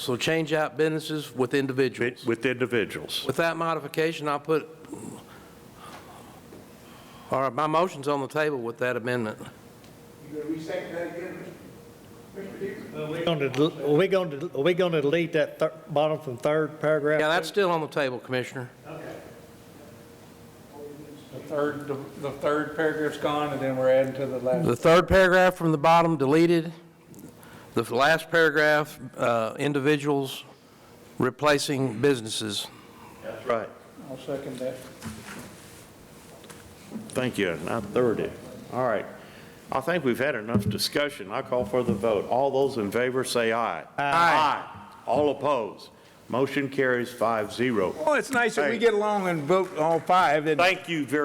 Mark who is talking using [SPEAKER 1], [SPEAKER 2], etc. [SPEAKER 1] So change out businesses with individuals.
[SPEAKER 2] with individuals.
[SPEAKER 1] With that modification, I'll put, all right, my motion's on the table with that amendment.
[SPEAKER 3] Gonna del- Are we going to, are we going to delete that thir- bottom from third paragraph?
[SPEAKER 1] Yeah, that's still on the table, Commissioner.
[SPEAKER 4] The third, the third paragraph's gone, and then we're adding to the last.
[SPEAKER 1] The third paragraph from the bottom deleted. The last paragraph, uh, individuals replacing businesses.
[SPEAKER 2] That's right.
[SPEAKER 4] I'll second that.
[SPEAKER 2] Thank you, and I third it. All right. I think we've had enough discussion. I call for the vote. All those in favor say aye. Aye. All opposed. Motion carries five zero.
[SPEAKER 4] Well, it's nice that we get along and vote all five, and
[SPEAKER 2] Thank you very